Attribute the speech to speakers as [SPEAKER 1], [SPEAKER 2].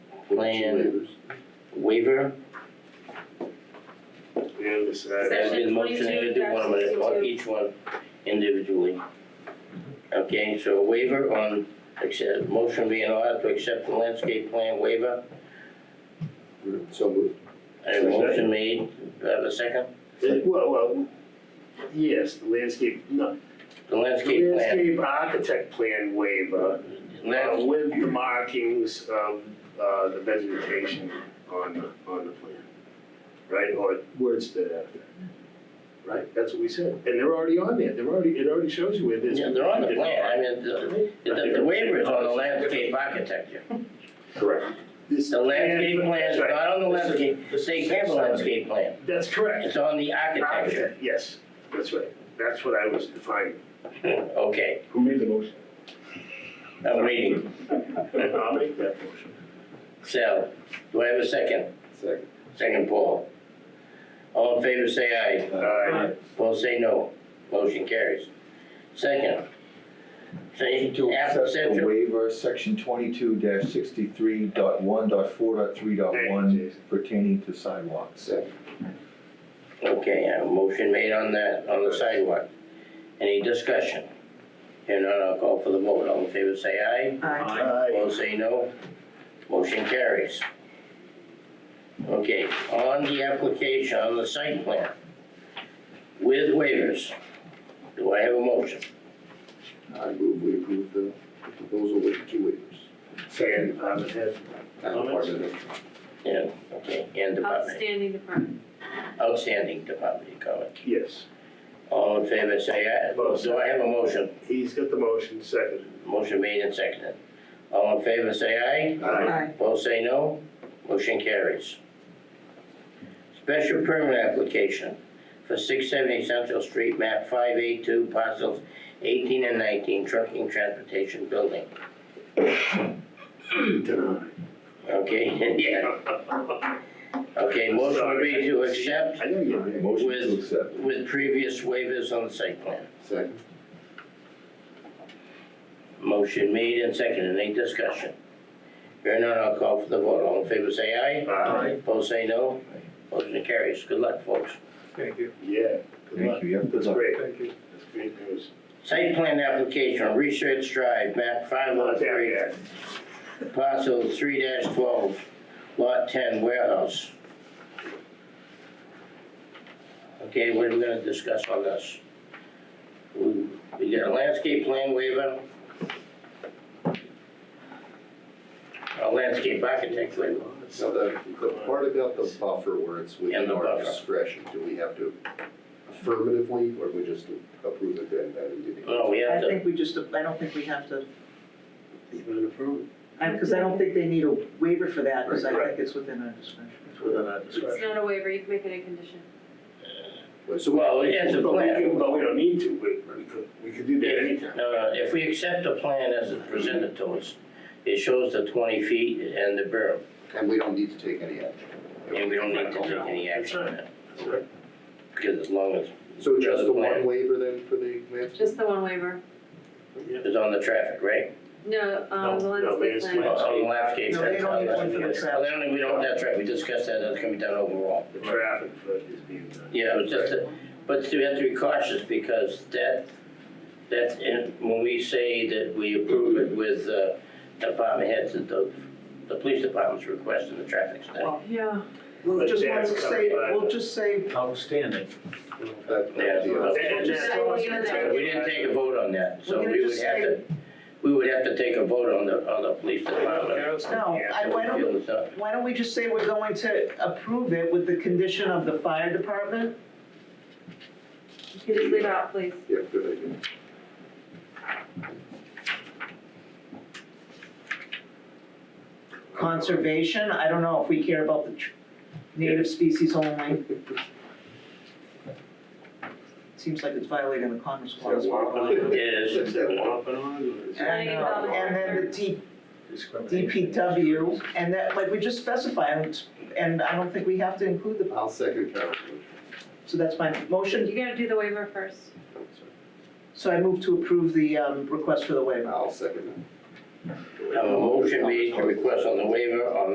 [SPEAKER 1] plan waiver.
[SPEAKER 2] We understand.
[SPEAKER 1] There's been a motion, I can do one of them, on
[SPEAKER 3] 22-62.
[SPEAKER 1] each one individually. Okay, so a waiver on, accept, motion being ordered to accept the landscape plan waiver.
[SPEAKER 4] So moved.
[SPEAKER 1] I have a motion made, do I have a second?
[SPEAKER 2] Well, well, yes, the landscape, no,
[SPEAKER 1] The
[SPEAKER 2] the
[SPEAKER 1] landscape plan.
[SPEAKER 2] landscape architect plan waiver uh,
[SPEAKER 1] Lands-
[SPEAKER 2] with the markings of uh, the vegetation on, the- on the plan. Right, or words to that effect. Right, that's what we said. And they're already on there, they're already, it already shows you where this.
[SPEAKER 1] Yeah, they're on the plan, I mean, the, the the waiver is on the landscape architecture.
[SPEAKER 2] Correct. This.
[SPEAKER 1] The landscape
[SPEAKER 2] plan-
[SPEAKER 1] plan is
[SPEAKER 2] that's
[SPEAKER 1] not
[SPEAKER 2] right.
[SPEAKER 1] on the
[SPEAKER 2] This is-
[SPEAKER 1] landscape,
[SPEAKER 2] this
[SPEAKER 1] they
[SPEAKER 2] is-
[SPEAKER 1] have a landscape plan,
[SPEAKER 2] That's correct.
[SPEAKER 1] it's on the architecture.
[SPEAKER 2] Architect, Yes, that's right. That's what I was defining.
[SPEAKER 1] Okay,
[SPEAKER 4] Who made the motion?
[SPEAKER 1] I'm waiting.
[SPEAKER 2] I'll make that motion.
[SPEAKER 1] Sal, do I have a second?
[SPEAKER 4] Second.
[SPEAKER 1] Second, Paul. All in favor, say aye.
[SPEAKER 2] Aye.
[SPEAKER 1] Opposed, say no. Motion carries. Second. Say,
[SPEAKER 4] Motion to
[SPEAKER 1] app-
[SPEAKER 4] accept the
[SPEAKER 1] central,
[SPEAKER 4] waiver, section twenty-two dash sixty-three dot one dot four dot three dot
[SPEAKER 2] Thank you,
[SPEAKER 4] one
[SPEAKER 2] Jason.
[SPEAKER 4] pertaining to sidewalks.
[SPEAKER 1] okay, a motion made on that, on the sidewalk. Any discussion? Here none, I'll call for the vote. All in favor, say aye.
[SPEAKER 2] Aye.
[SPEAKER 1] Opposed, say no. Motion carries. Okay, on the application, on the site plan, with waivers, do I have a motion?
[SPEAKER 5] I move we approve the proposal with the two waivers.
[SPEAKER 2] Second, department head. Comments?
[SPEAKER 1] Yeah, okay, and department,
[SPEAKER 3] Outstanding department.
[SPEAKER 1] outstanding department comment.
[SPEAKER 2] Yes,
[SPEAKER 1] All in favor, say aye.
[SPEAKER 2] Motion.
[SPEAKER 1] Do I have a motion?
[SPEAKER 2] he's got the motion, second.
[SPEAKER 1] Motion made and seconded. All in favor, say
[SPEAKER 2] Aye.
[SPEAKER 1] aye. Both say no. Motion carries. Special permit application for six seventy Central Street, map five eight two, parcels eighteen and nineteen, trucking transportation building.
[SPEAKER 2] Denied.
[SPEAKER 1] Okay, yeah, okay, motion would be to accept
[SPEAKER 2] I know you did.
[SPEAKER 4] Motion to
[SPEAKER 1] With-
[SPEAKER 4] accept.
[SPEAKER 1] with previous waivers on the site plan.
[SPEAKER 5] Second.
[SPEAKER 1] Motion made and seconded, any discussion? Hearing none, I'll call for the vote, all in favor say aye.
[SPEAKER 2] Aye.
[SPEAKER 1] Opposed say no. Motion carries, good luck, folks.
[SPEAKER 6] Thank you,
[SPEAKER 2] Yeah, good luck.
[SPEAKER 4] Thank you, yeah, good
[SPEAKER 2] That's
[SPEAKER 4] luck.
[SPEAKER 2] great,
[SPEAKER 6] thank you.
[SPEAKER 2] that's great news.
[SPEAKER 1] Site plan application, Research Drive, map five oh
[SPEAKER 2] Not there
[SPEAKER 1] three,
[SPEAKER 2] yet.
[SPEAKER 1] parcel three twelve, lot ten warehouse. Okay, what are we gonna discuss on this? We, we got a landscape plan waiver. A landscape architect waiver.
[SPEAKER 5] So the, the part about the buffer where it's
[SPEAKER 1] And
[SPEAKER 5] within
[SPEAKER 1] the
[SPEAKER 5] our
[SPEAKER 1] buffer.
[SPEAKER 5] discretion, do we have to affirmatively, or we just approve it then, that it didn't?
[SPEAKER 1] Well, Oh, we
[SPEAKER 7] I
[SPEAKER 1] have to,
[SPEAKER 7] think we just, I don't think we have to,
[SPEAKER 2] Even approved.
[SPEAKER 7] because I don't think they need a waiver for that, because I
[SPEAKER 2] Right.
[SPEAKER 7] think it's within our discretion.
[SPEAKER 2] It's within our discretion.
[SPEAKER 3] It's not a waiver, you can make it a condition.
[SPEAKER 5] So
[SPEAKER 1] well, it's a
[SPEAKER 2] But we
[SPEAKER 1] plan.
[SPEAKER 2] can- But we don't need to, we, we could, we could do that
[SPEAKER 1] If,
[SPEAKER 2] anytime.
[SPEAKER 1] no, no, Uh, if we accept the plan as it's presented to us, it shows the twenty feet and the berm,
[SPEAKER 5] And we don't need to take any action.
[SPEAKER 1] and we don't need to take any action on that,
[SPEAKER 2] That's right.
[SPEAKER 1] because as long as
[SPEAKER 5] So just
[SPEAKER 1] Another
[SPEAKER 5] the
[SPEAKER 1] plan.
[SPEAKER 5] one waiver then for the landscape?
[SPEAKER 3] Just the one waiver.
[SPEAKER 2] Yeah.
[SPEAKER 1] it's on the traffic, right?
[SPEAKER 3] No, um, the
[SPEAKER 2] No, no,
[SPEAKER 3] landscape
[SPEAKER 2] landscape.
[SPEAKER 3] plan.
[SPEAKER 1] On on the landscape.
[SPEAKER 7] No, they don't need one for the traffic.
[SPEAKER 1] Well, they don't, we don't, that's right, we discussed that, that's gonna be done overall.
[SPEAKER 2] The traffic flood is being done.
[SPEAKER 1] Yeah, it was just, a- but we have to be cautious, because that, that's, in- when we say that we approve it with, uh, department heads, the, the police department's requesting the traffic study.
[SPEAKER 7] Yeah.
[SPEAKER 2] But
[SPEAKER 7] We'll just want
[SPEAKER 2] that's
[SPEAKER 7] to say,
[SPEAKER 2] covered by
[SPEAKER 7] we'll
[SPEAKER 2] the-
[SPEAKER 7] just say,
[SPEAKER 6] Outstanding.
[SPEAKER 5] That-
[SPEAKER 1] Yeah.
[SPEAKER 5] that would be
[SPEAKER 2] And-
[SPEAKER 5] awesome.
[SPEAKER 2] and
[SPEAKER 7] Just
[SPEAKER 2] that's
[SPEAKER 3] say
[SPEAKER 2] all
[SPEAKER 3] we
[SPEAKER 2] it's
[SPEAKER 3] did
[SPEAKER 2] gonna
[SPEAKER 3] that.
[SPEAKER 2] take.
[SPEAKER 1] We didn't take a vote on that, so
[SPEAKER 7] We're gonna
[SPEAKER 1] we would
[SPEAKER 7] just
[SPEAKER 1] have to, we would have to take a vote on the, on the police department.
[SPEAKER 7] no, I, why don't,
[SPEAKER 1] Feel it's up.
[SPEAKER 7] why don't we just say we're going to approve it with the condition of the fire department?
[SPEAKER 3] You can just leave it out, please.
[SPEAKER 5] Yeah, good idea.
[SPEAKER 7] Conservation, I don't know if we care about the tr- native species only. Seems like it's violating the Commerce Clause.
[SPEAKER 1] It is,
[SPEAKER 2] Is that off and on, or is
[SPEAKER 7] And,
[SPEAKER 2] it-
[SPEAKER 7] uh, and then the D,
[SPEAKER 6] Discrimination.
[SPEAKER 7] DPW, and that, like, we just specify, and- and I don't think we have to include the,
[SPEAKER 5] I'll second Carol's
[SPEAKER 7] so that's my motion.
[SPEAKER 3] You gotta do the waiver first.
[SPEAKER 5] motion.
[SPEAKER 7] So I move to approve the um, request for the waiver.
[SPEAKER 5] I'll second that.
[SPEAKER 1] um, a motion made to request on the waiver on